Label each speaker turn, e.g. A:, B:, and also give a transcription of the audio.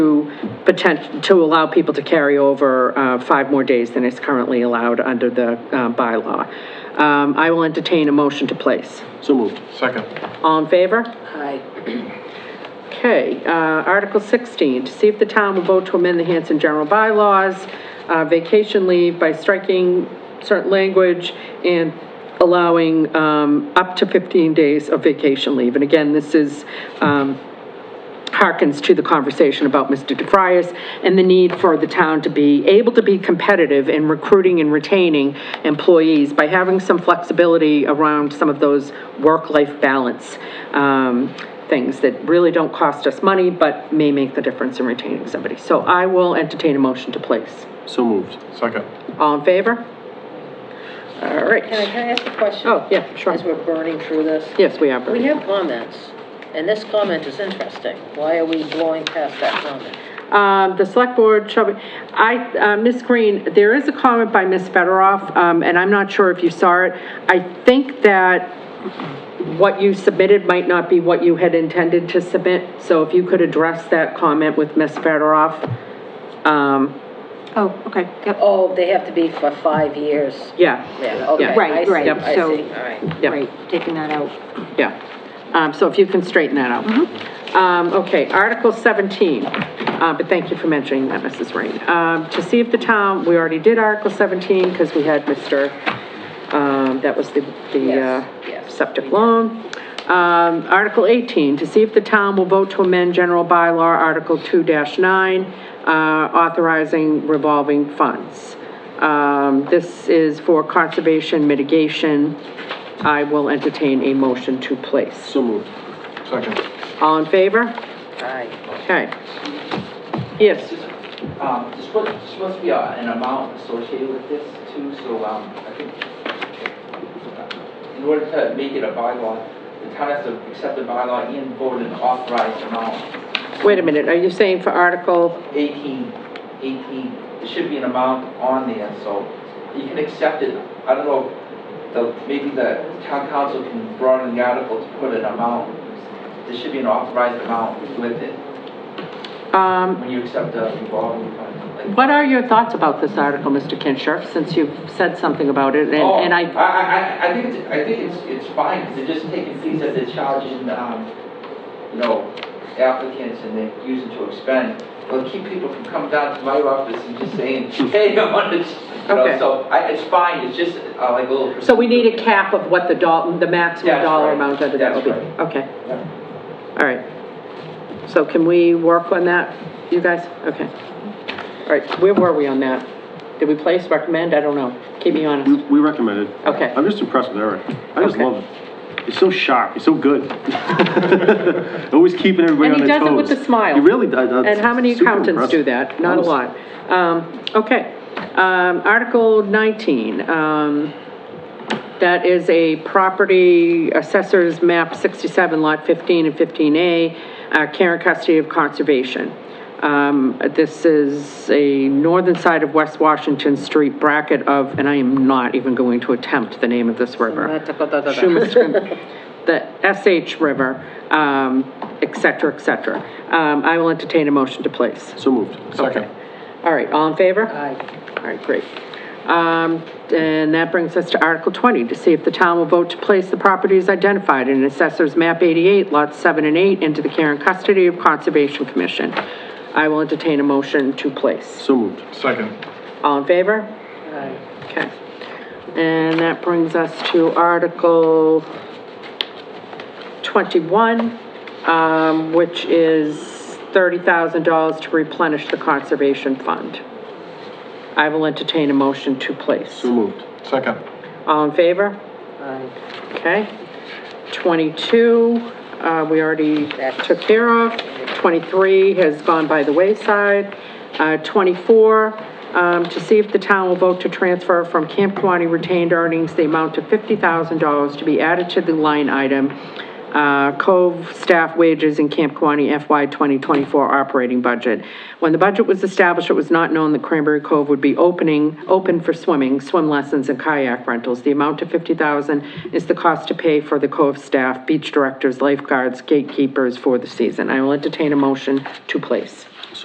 A: potent, to allow people to carry over uh, five more days than is currently allowed under the uh, bylaw. Um, I will entertain a motion to place.
B: So moved.
C: Second.
A: All in favor?
D: Aye.
A: Okay, uh, Article 16, to see if the town will vote to amend the Hanson general bylaws, uh, vacation leave by striking certain language and allowing um, up to 15 days of vacation leave. And again, this is, um, harkens to the conversation about Mr. DeFrias and the need for the town to be able to be competitive in recruiting and retaining employees by having some flexibility around some of those work-life balance um, things that really don't cost us money but may make the difference in retaining somebody. So I will entertain a motion to place.
B: So moved.
C: Second.
A: All in favor? All
D: Can I,
A: right.
D: can I ask a question?
A: Oh, yeah, sure.
D: As we're burning through this?
A: Yes, we are.
D: We have comments, and this comment is interesting. Why are we blowing past that comment?
A: Um, the select board shall be, I, uh, Ms. Green, there is a comment by Ms. Federoff, um, and I'm not sure if you saw it. I think that what you submitted might not be what you had intended to submit, so if you could address that comment with Ms. Federoff. Um,
E: Oh, okay, yep,
D: Oh, they have to be for five years.
A: yeah,
D: Yeah, okay,
A: Yeah.
E: Right,
D: I see,
E: right,
D: I see,
E: so-
D: all right.
A: yeah,
E: right, taking that out.
A: yeah. Um, so if you can straighten that out.
D: Mm-hmm.
A: Um, okay, Article 17, uh, but thank you for mentioning that, Mrs. Rain. Um, to see if the town, we already did Article 17, because we had Mr., um, that was the, the,
D: Yes,
A: uh,
D: yes.
A: septic loan. Um, Article 18, to see if the town will vote to amend general bylaw Article 2-9, uh, authorizing revolving funds. Um, this is for conservation mitigation. I will entertain a motion to place.
B: So moved.
C: Second.
A: All in favor?
D: Aye.
A: Okay. Yes,
F: Um, there's supposed, there's supposed to be uh, an amount associated with this too, so, um, I think, uh, in order to make it a bylaw, the town has to accept the bylaw and vote an authorized amount.
A: wait a minute, are you saying for Article,
F: Eighteen, eighteen, there should be an amount on there, so you can accept it. I don't know, the, maybe the town council can broaden the article to put an amount. There should be an authorized amount with it
A: um,
F: when you accept the revolving fund. like-
A: what are your thoughts about this article, Mr. Kinshirf, since you've said something about it, and,
F: Oh,
A: and I,
F: I, I, I think, it's- I think it's, it's fine, 'cause they're just taking fees that they're charging, um, you know, applicants and they're using to expend. Well, keep people from coming down to my office and just saying, hey, I want to, you
A: Okay.
F: know, so I, it's fine, it's just uh, like a little.
A: so we need a cap of what the doll, the maximum
F: That's
A: dollar
F: right.
A: amount that it
F: That's
A: will be?
F: right.
A: Okay,
F: Yeah.
A: all right. So can we work on that, you guys? Okay. All right, where were we on that? Did we place, recommend? I don't know. Keep me honest.
B: We we recommended.
A: Okay.
B: I'm just impressed with Eric. I just
A: Okay.
B: love it. He's so sharp, he's so good. Always keeping everybody
A: And
B: on
A: he
B: their toes.
A: does it with a smile.
B: He really does. That's
A: And how many
B: super
A: accountants do
B: impressive.
A: that? Not a
B: Honestly.
A: lot. Um, okay. Um, Article 19, um, that is a property assessor's map 67, lot 15 and 15A, uh, care and custody of conservation. Um, this is a northern side of West Washington Street bracket of, and I am not even going to attempt the name of this river. Shumaskin, the SH River, um, et cetera, et cetera. Um, I will entertain a motion to place.
B: So moved.
C: Second.
A: All right, all in favor?
D: Aye.
A: All right, great. Um, and that brings us to Article 20, to see if the town will vote to place the properties identified in Assessor's Map 88, Lots 7 and 8, into the care and custody of Conservation Commission. I will entertain a motion to place.
B: So moved.
C: Second.
A: All in favor?
D: Aye.
A: Okay. And that brings us to Article 21, um, which is $30,000 to replenish the Conservation Fund. I will entertain a motion to place.
B: So moved.
C: Second.
A: All in favor?
D: Aye.
A: Okay. 22, uh, we already took care of. 23 has gone by the wayside. Uh, 24, um, to see if the town will vote to transfer from Camp Quaney retained earnings the amount of $50,000 to be added to the line item, uh, Cove staff wages in Camp Quaney FY 2024 operating budget. When the budget was established, it was not known that Cranberry Cove would be opening, open for swimming, swim lessons, and kayak rentals. The amount of $50,000 is the cost to pay for the Cove staff, beach directors, lifeguards, gatekeepers for the season. I will entertain a motion to place.